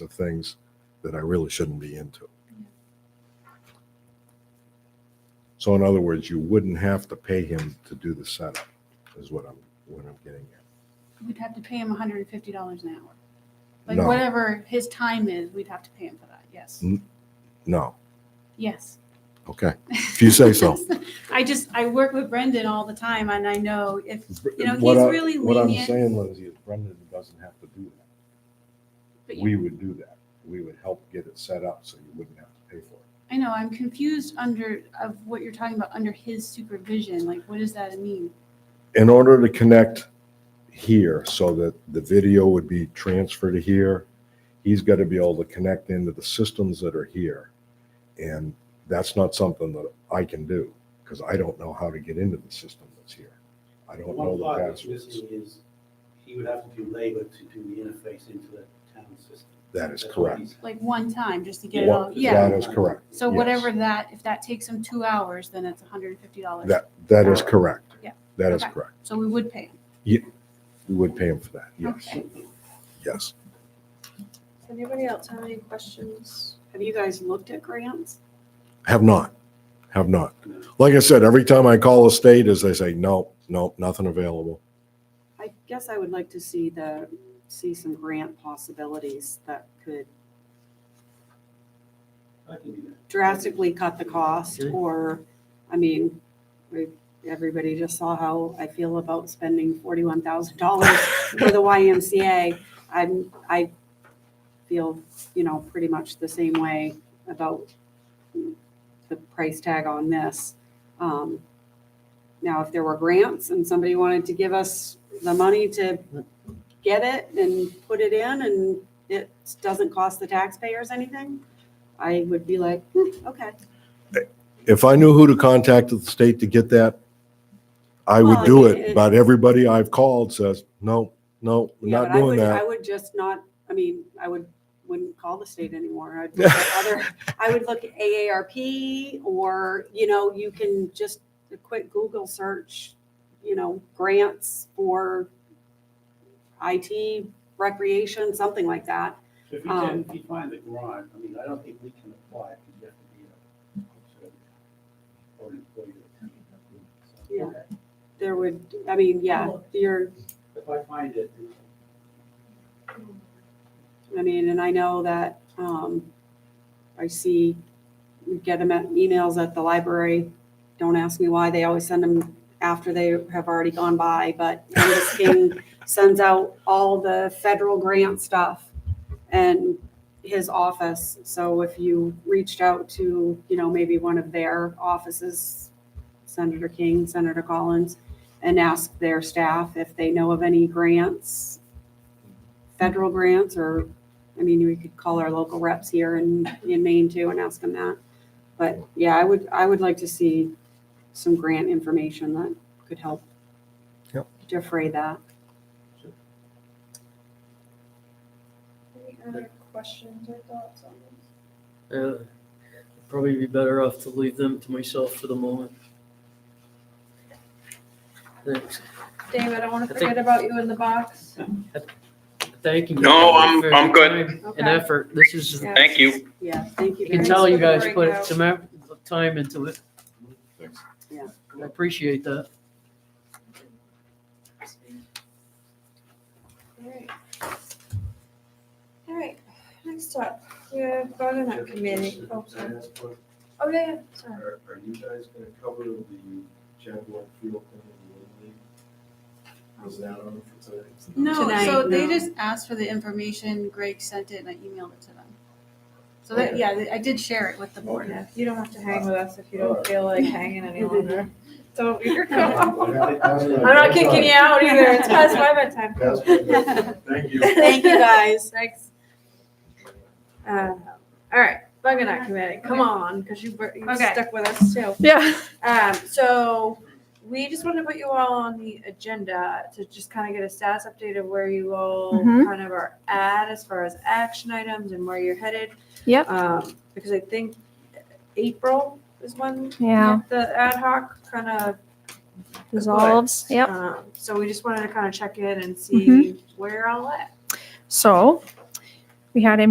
of things that I really shouldn't be into. So in other words, you wouldn't have to pay him to do the setup is what I'm, what I'm getting at. We'd have to pay him hundred and fifty dollars an hour. Like No. Mm. whatever his time is, we'd have to pay him for that. Yes. No, Yes. okay, if you say so. I just, I work with Brendan all the time and I know if, you know, What he's I- really What I'm lenient. saying, Lindsay, is Brendan doesn't have to do that. but you- We would do that. We would help get it set up so you wouldn't have to pay for it. I know, I'm confused under, of what you're talking about, under his supervision. Like, what does that mean? In order to connect here so that the video would be transferred to here, he's got to be able to connect into the systems that are here. And that's not something that I can do because I don't know how to get into the system that's here. I don't know One the part that's passwords. missing is he would have to do labor to do the interface into the town system. That is That's what correct. he's- Like one time, just to get it One- all, yeah. That is correct. So yes. whatever that, if that takes him two hours, then it's hundred and fifty dollars. That, that is correct. Uh, Yeah. That is Okay. correct. So we would pay him. We would pay him for that. Yes, Okay. yes. Does Anybody else have any questions? Have you guys looked at grants? Have not, have not. Like I said, every time I call a state is they say, nope, nope, nothing available. I guess I would like to see the, see some grant possibilities that could I can do that. drastically cut the cost or, I mean, we- everybody just saw how I feel about spending forty-one thousand dollars for the YMCA. I'm, I feel, you know, pretty much the same way about the price tag on this. Um, Now, if there were grants and somebody wanted to give us the money to get it and put it in and it doesn't cost the taxpayers anything, I would be like, "Hmm, okay. If I knew who to contact at the state to get that, I would Well, do Oh, it- it, but everybody I've called says, no, no, we're Yeah, not but I doing would, I that. would just not, I mean, I would, wouldn't call the state anymore. I'd look at other, I would look at AARP or, you know, you can just a quick Google search, you know, grants for IT, recreation, something like that. So If he can, Um, if he finds a grant, I mean, I don't think we can apply because you have to be a, or an employee. of the town. So, Yeah. okay. There would, I mean, yeah, you're, If I find it, I mean, and I know that, um, I see, we get them at emails at the library. Don't ask me why, they always send them after they have already gone by, but Candace King sends out all the federal grant stuff and his office. So if you reached out to, you know, maybe one of their offices, Senator King, Senator Collins, and ask their staff if they know of any grants federal grants or, I mean, we could call our local reps here in, in Maine too and ask them that. But yeah, I would, I would like to see some grant information that could help Yep. defray that. Any other questions or thoughts on this? Uh, probably be better off to leave them to myself for the moment. Thanks. David, I want I to think- forget about you in the box. Thank you. No, I'm- for I'm your good. time Okay. And effort. This is, Yeah. Thank you. Yeah, thank you. you can very Thanks tell much. you for the guys put breakout. some effort- time into it. Yeah. I appreciate that. Alright. Alright, next up, we have butternut committee. Oh, sorry. Oh, yeah, yeah, sorry. Are, are you guys gonna cover the Jaguar Field thing in the Little League? Was that on for today? No, so Tonight, they no. just asked for the information, Greg sent it and I emailed it to them. So that, yeah, I did share it with the board. Okay. You don't have to hang with us if you don't feel like hanging any longer. Don't, you're cool. I'm I'm not kicking you out either. It's past my bedtime. That's my bedtime. Thank you. Thank you guys. Thanks. Uh, All right, butternut committee, come on, because you were, you Okay. stuck with us too. Yeah. Um, so we just wanted to put you all on the agenda to just kind of get a status update of where you all Mhm. kind of are at as far as action items and where you're headed. Yep. Um, because I think April is when Yeah. the ad hoc kind of dissolves. Yep. Um, so we just wanted to kind of check in and see where you're all at. So we had a